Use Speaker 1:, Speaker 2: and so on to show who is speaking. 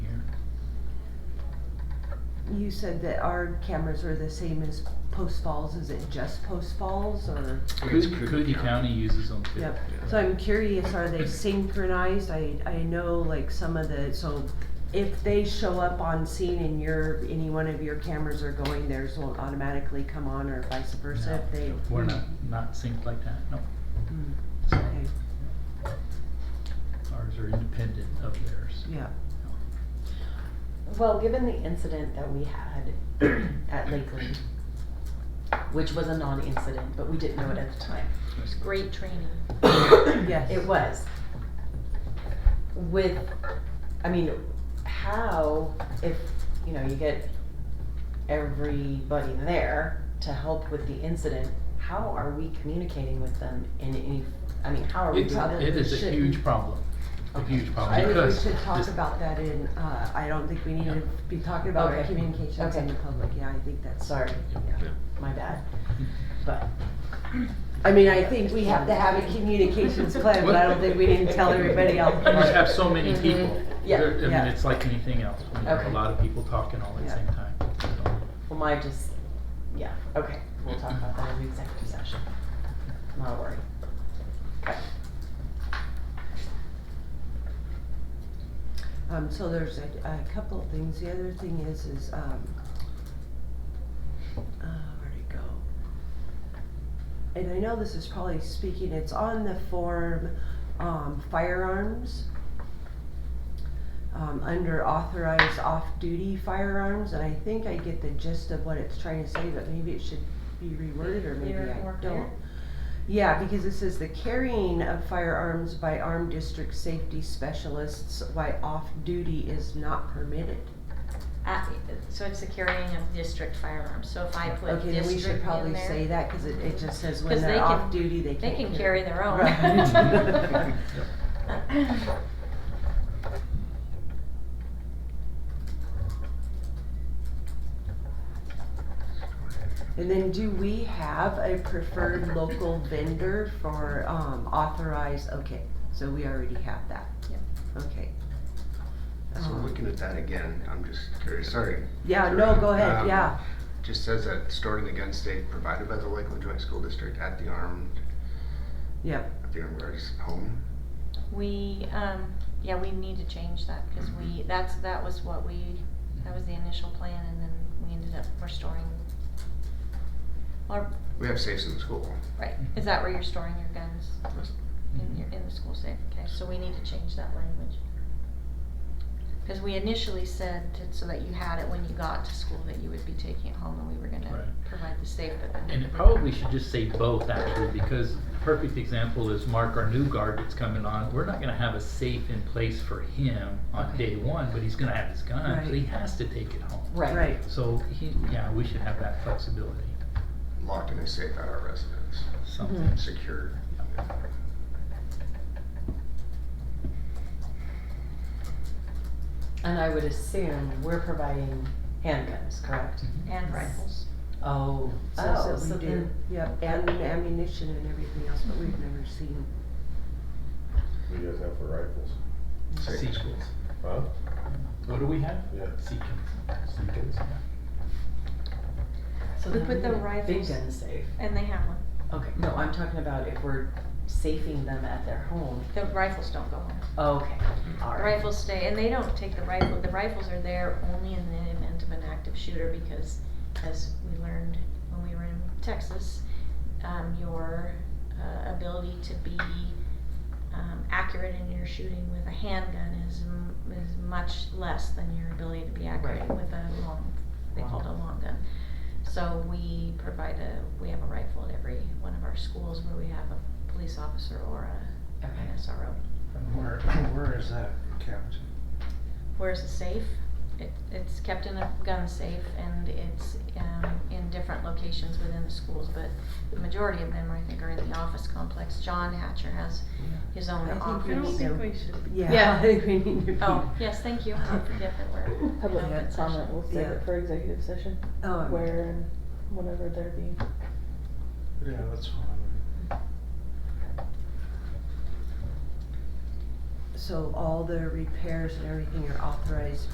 Speaker 1: You said that our cameras are the same as Post Falls, is it just Post Falls or?
Speaker 2: It's
Speaker 3: Coogee
Speaker 2: Coogee County uses them too.
Speaker 1: Yep, so I'm curious, are they synchronized? I, I know like some of the, so if they show up on scene and your, any one of your cameras are going, theirs won't automatically come on or vice versa if they.
Speaker 2: No, We're not, not synced like that, no.
Speaker 1: Mm,
Speaker 2: So
Speaker 1: Okay,
Speaker 2: Ours are independent of theirs.
Speaker 1: yeah,
Speaker 4: Well, given the incident that we had at Lakeland, which was a non-incident, but we didn't know it at the time.
Speaker 5: It's great training.
Speaker 1: yes.
Speaker 4: It was. With, I mean, how, if, you know, you get everybody there to help with the incident, how are we communicating with them in any, I mean, how are we
Speaker 2: It's,
Speaker 4: doing
Speaker 2: it is a
Speaker 1: shouldn't.
Speaker 2: huge problem, a huge problem.
Speaker 1: I think we
Speaker 2: because
Speaker 1: should talk
Speaker 2: this-
Speaker 1: about that in, uh, I don't think we need to be talking about our
Speaker 4: Okay.
Speaker 1: communications in
Speaker 4: Okay.
Speaker 1: the public, yeah, I think that's.
Speaker 4: Sorry,
Speaker 1: Yeah.
Speaker 4: my bad, but.
Speaker 1: I mean, I think we have to have a communications plan, but I don't think we need to tell everybody else.
Speaker 2: You just have so many
Speaker 4: Mhm.
Speaker 2: people.
Speaker 4: Yeah.
Speaker 2: There- I
Speaker 1: Mm-hmm. Yeah.
Speaker 2: mean, it's like anything else. When you have a
Speaker 4: Okay.
Speaker 2: lot of people talking all at the
Speaker 1: Yeah.
Speaker 2: same time. so.
Speaker 4: Well, my just, yeah, okay, we'll talk about that in the executive session. Not a worry. Okay.
Speaker 1: Um, so there's a, a couple of things. The other thing is, is, um, uh, where'd it go? And I know this is probably speaking, it's on the form, um, firearms. Um, under authorized off-duty firearms, and I think I get the gist of what it's trying to say, but maybe it should be reworded or maybe I
Speaker 5: Clear,
Speaker 1: don't.
Speaker 5: more clear?
Speaker 1: Yeah, because it says the carrying of firearms by armed district safety specialists while off duty is not permitted.
Speaker 5: At- So it's the carrying of district firearms, so if I put
Speaker 1: Okay, then we should
Speaker 5: district in
Speaker 1: probably say
Speaker 5: there,
Speaker 1: that, cause it, it just says
Speaker 5: 'Cause
Speaker 1: when
Speaker 5: they
Speaker 1: they're
Speaker 5: can-
Speaker 1: off duty, they
Speaker 5: they
Speaker 1: can't.
Speaker 5: can carry their own.
Speaker 1: Right. And then do we have a preferred local vendor for, um, authorized, okay, so we already have that.
Speaker 5: Yep.
Speaker 1: Okay.
Speaker 3: So
Speaker 1: Um,
Speaker 3: looking at that again, I'm just curious, sorry.
Speaker 1: Yeah, no, go ahead,
Speaker 3: Um,
Speaker 1: yeah,
Speaker 3: Just says that storing the gun safe provided by the Lakeland Joint School District at the armed,
Speaker 1: yep.
Speaker 3: at the armed guard's home.
Speaker 5: We, um, yeah, we need to change that, cause we, that's, that was what we, that was the initial plan, and then we ended up restoring. Or,
Speaker 3: We have safes in the school.
Speaker 5: right,
Speaker 2: Mm-hmm.
Speaker 5: is that where you're storing your guns, in your, in the school safe, okay, so we need to change that language. Cause we initially said, to- so that you had it when you got to school, that you would be taking it home, and we were gonna
Speaker 2: Right.
Speaker 5: provide the safe, but then.
Speaker 2: And it probably should just say both actually, because the perfect example is Mark, our new guard that's coming on. We're not gonna have a safe in place for him on day one, but he's gonna have his gun, so he
Speaker 1: Right.
Speaker 2: has to take it home.
Speaker 1: Right,
Speaker 2: So he, yeah, we should have that flexibility,
Speaker 3: Locked in a safe at our residence,
Speaker 2: something.
Speaker 3: secured.
Speaker 4: And I would assume we're providing handguns, correct?
Speaker 5: And rifles.
Speaker 4: Oh.
Speaker 1: so
Speaker 4: Oh,
Speaker 1: that
Speaker 4: so
Speaker 1: we do,
Speaker 4: then,
Speaker 1: yep, and ammunition and everything else, but we've never seen.
Speaker 6: What do you guys have for rifles?
Speaker 3: Safe in
Speaker 2: Seek.
Speaker 3: school.
Speaker 6: Huh?
Speaker 2: What do we have?
Speaker 6: Yeah.
Speaker 2: Seekins.
Speaker 6: Seekins?
Speaker 4: so
Speaker 5: We
Speaker 4: then
Speaker 5: put
Speaker 4: we
Speaker 5: the
Speaker 4: need a big
Speaker 5: rifles-
Speaker 4: gun safe.
Speaker 5: And they have one.
Speaker 4: Okay, no, I'm talking about if we're safing them at their home.
Speaker 5: The rifles don't go home.
Speaker 4: Okay, all
Speaker 5: The
Speaker 4: right.
Speaker 5: rifles stay, and they don't take the rifle, the rifles are there only in the event of an active shooter because as we learned when we were in Texas, um, your, uh, ability to be, um, accurate in your shooting with a handgun is, m- is much less than your ability to be accurate
Speaker 4: Right.
Speaker 5: with a long, they call it a long gun. So we provide a, we have a rifle at every one of our schools where we have a police officer or a, an
Speaker 4: Okay.
Speaker 5: SRO.
Speaker 7: Where, where is that kept?
Speaker 5: Where's the safe? It, it's kept in a gun safe and it's, um, in different locations within the schools, but the majority of them, I think, are in the office complex. John Hatcher has his own
Speaker 1: I think we
Speaker 5: office.
Speaker 1: need to,
Speaker 8: should.
Speaker 1: yeah,
Speaker 5: Yeah.
Speaker 1: I think we need to be.
Speaker 5: Oh, yes, thank you. I forget that we're. in
Speaker 8: Public
Speaker 5: open
Speaker 8: comment,
Speaker 5: session.
Speaker 8: we'll save
Speaker 1: Yeah.
Speaker 8: it for executive session,
Speaker 1: Um,
Speaker 8: where and whenever there be.
Speaker 7: Yeah, that's fine.
Speaker 1: So all the repairs and everything are authorized